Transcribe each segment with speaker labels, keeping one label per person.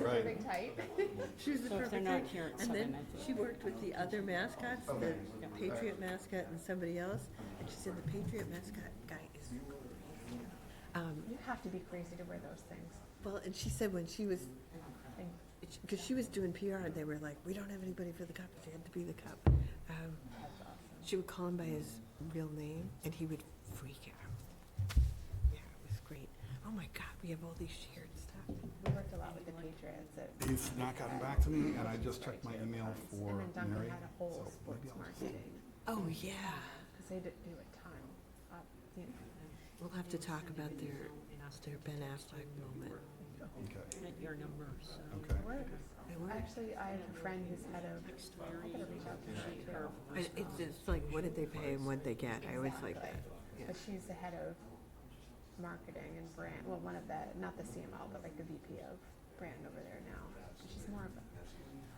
Speaker 1: Right.
Speaker 2: perfect type.
Speaker 3: She was the
Speaker 4: So if they're
Speaker 3: perfect
Speaker 4: not
Speaker 3: type.
Speaker 4: here, it's
Speaker 3: And then
Speaker 4: something like
Speaker 3: she worked with the other mascots, the Patriot mascot and somebody else, and she said the Patriot mascot guy is crazy. Um,
Speaker 2: You have to be crazy to wear those things.
Speaker 3: well, and she said when she was,
Speaker 2: And
Speaker 3: because she was doing PR, they were like, we don't have anybody for the cop, they had to be the cop. Um,
Speaker 2: that's awesome.
Speaker 3: She would call him by his real name, and he would freak out. Yeah, it was great. Oh my God, we have all these shared stuff.
Speaker 2: We worked a lot with the Patriots. It-
Speaker 1: He's not gotten back to me, and I just checked my email
Speaker 2: And
Speaker 1: for
Speaker 2: then Duncan
Speaker 1: Mary.
Speaker 2: had a whole
Speaker 1: so
Speaker 2: sports
Speaker 1: maybe I'll just-
Speaker 2: marketing,
Speaker 3: Oh yeah,
Speaker 2: because they did do a ton. of, you know,
Speaker 3: we'll have to talk about their their Ben Affleck moment.
Speaker 1: Okay,
Speaker 4: At your number, so.
Speaker 1: okay.
Speaker 2: work.
Speaker 3: They were-
Speaker 2: Actually, I have a friend who's head of, I gotta reach out to her too.
Speaker 3: I- It's just like, what did they pay and what did they get? I always like that.
Speaker 2: Exactly. But she's the head of marketing and brand, well, one of the, not the CMO, but like the VP of brand over there now. She's more of a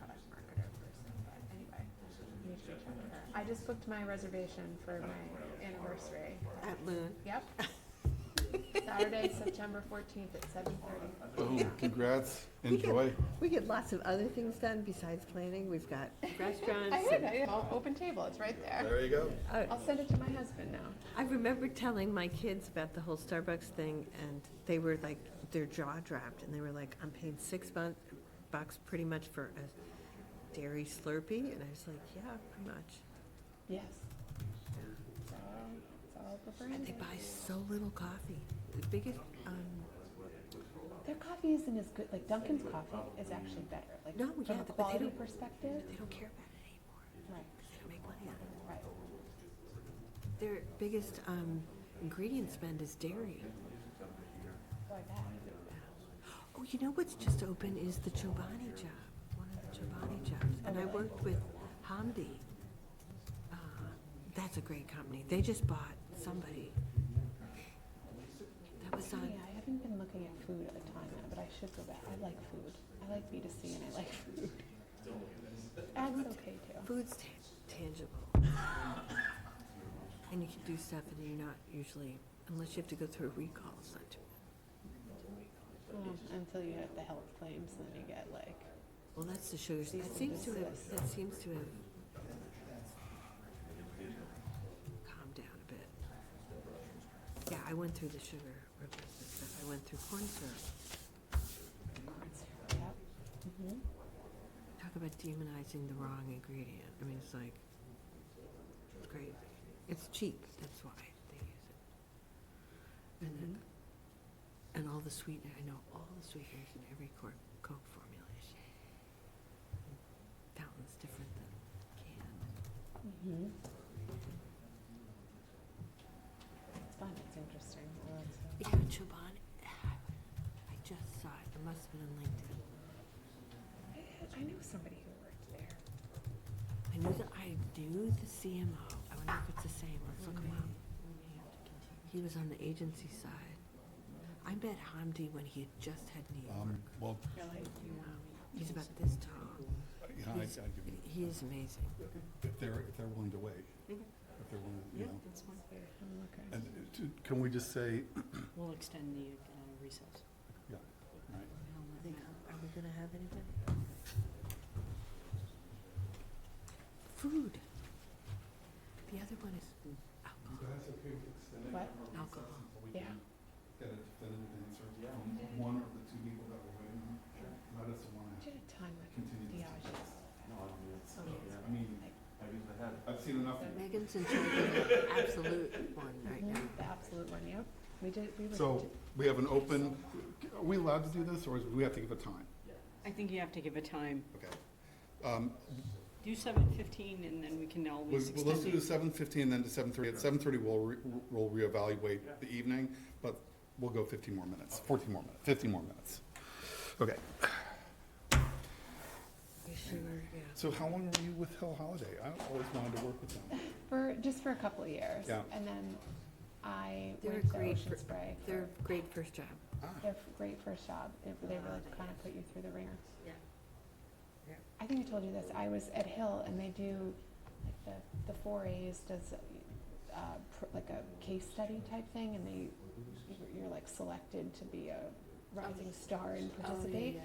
Speaker 2: product marketer person, but anyway, I need to reach out to her. I just booked my reservation for my anniversary.
Speaker 3: At Loon.
Speaker 2: Yep. Saturday, September fourteenth at seven thirty.
Speaker 1: Boom, congrats,
Speaker 3: We get-
Speaker 1: enjoy.
Speaker 3: We get lots of other things done besides planning. We've got restaurants.
Speaker 2: I heard,
Speaker 3: and-
Speaker 2: I open table, it's right there.
Speaker 1: There you go.
Speaker 3: Oh,
Speaker 2: I'll send it to my husband now.
Speaker 3: I remember telling my kids about the whole Starbucks thing, and they were like, their jaw dropped, and they were like, I'm paying six bu- bucks pretty much for a dairy Slurpee, and I was like, yeah, pretty much.
Speaker 2: Yes. So, it's all over
Speaker 3: And
Speaker 2: branding.
Speaker 3: they buy so little coffee. The biggest, um,
Speaker 2: Their coffee isn't as good, like Dunkin's coffee is actually better, like
Speaker 3: No, yeah,
Speaker 2: from a
Speaker 3: but they
Speaker 2: quality
Speaker 3: don't-
Speaker 2: perspective.
Speaker 3: they don't care about it anymore.
Speaker 2: Right,
Speaker 3: 'cause They don't make money on it.
Speaker 2: right.
Speaker 3: Their biggest, um, ingredient spend is dairy.
Speaker 2: Why that?
Speaker 3: Oh, you know what's just open is the Chobani job, one of the Chobani jobs. And I worked with Hamdi. Uh, That's a great company. They just bought somebody. That was on,
Speaker 2: Yeah, I haven't been looking at food a ton now, but I should go back. I like food. I like B 2 C and I like food. Ag's okay too.
Speaker 3: food's ta- tangible. And you can do stuff and you're not usually, unless you have to go through a recall, it's not too
Speaker 2: Um, until you hit the health claims and then you get like,
Speaker 3: Well, that's the sugars. That seems to have, that seems to have calmed down a bit. Yeah, I went through the sugar ribbons and stuff. I went through corn syrup.
Speaker 2: corn syrup. Yep. Mm-hmm.
Speaker 3: Talk about demonizing the wrong ingredient. I mean, it's like, it's great. It's cheap, that's why they use it. And then, and all the sweetener, I know all the sweeteners in every cor- Coke formulation. Fountain's different than canned.
Speaker 2: Mm-hmm. It's fun. It's interesting. I love food.
Speaker 3: Yeah, Chobani. I just saw it. It must have been on LinkedIn.
Speaker 2: I, I know somebody who worked there.
Speaker 3: I knew that I knew the CMO. I wonder if it's the same. Let's look him up. He was on the agency side. I met Hamdi when he had just had New York.
Speaker 1: Um, well,
Speaker 2: Really?
Speaker 3: He's about this tall.
Speaker 1: you know, I, I
Speaker 3: He's-
Speaker 1: give you,
Speaker 3: He is amazing.
Speaker 1: if they're, if they're willing to wait,
Speaker 2: Mm-hmm.
Speaker 1: if they're willing, you know.
Speaker 4: that's fine.
Speaker 2: I'm looking.
Speaker 1: And uh, to- can we just say,
Speaker 4: We'll extend the uh, recess.
Speaker 1: yeah, right.
Speaker 3: Are we gonna have anybody? Food. The other one is alcohol.
Speaker 1: That's okay with extending.
Speaker 2: What?
Speaker 3: Alcohol.
Speaker 2: Yeah.
Speaker 1: Get a definitive answer from one of the two people that were waiting. on. Let us want
Speaker 2: Did a ton with
Speaker 1: continue.
Speaker 2: Diageo's.
Speaker 1: So, I mean, I've seen enough.
Speaker 3: Megan's in charge of the absolute one right now.
Speaker 2: Mhm, The absolute one, yep. We did, we were.
Speaker 1: So we have an open, are we allowed to do this or is- do we have to give a time?
Speaker 4: I think you have to give a time.
Speaker 1: Okay. Um,
Speaker 4: Do seven fifteen and then we can always
Speaker 1: Well, let's
Speaker 4: extend
Speaker 1: do
Speaker 4: it.
Speaker 1: seven fifteen, then to seven thirty. At seven thirty, we'll, re- we'll reevaluate the evening, but we'll go fifteen more minutes, fourteen more minutes, fifteen more minutes. Okay,
Speaker 3: You sure? Yeah.
Speaker 1: so how long were you with Hill Holiday? I always wanted to work with them.
Speaker 2: For, just for a couple of years.
Speaker 1: Yeah.
Speaker 2: And then I
Speaker 3: They're
Speaker 2: went to
Speaker 3: great
Speaker 2: Ocean
Speaker 3: for-
Speaker 2: Spray. for-
Speaker 3: They're great first job.
Speaker 1: Ah.
Speaker 2: They're f- great first job. They, they really kind of put you through the ringer.
Speaker 3: Yeah. Yeah.
Speaker 2: I think I told you this. I was at Hill and they do, like the, the four A's does, uh, pr- like a case study type thing
Speaker 3: Oh,
Speaker 2: and they, you're- you're like selected to be a rising star and participate.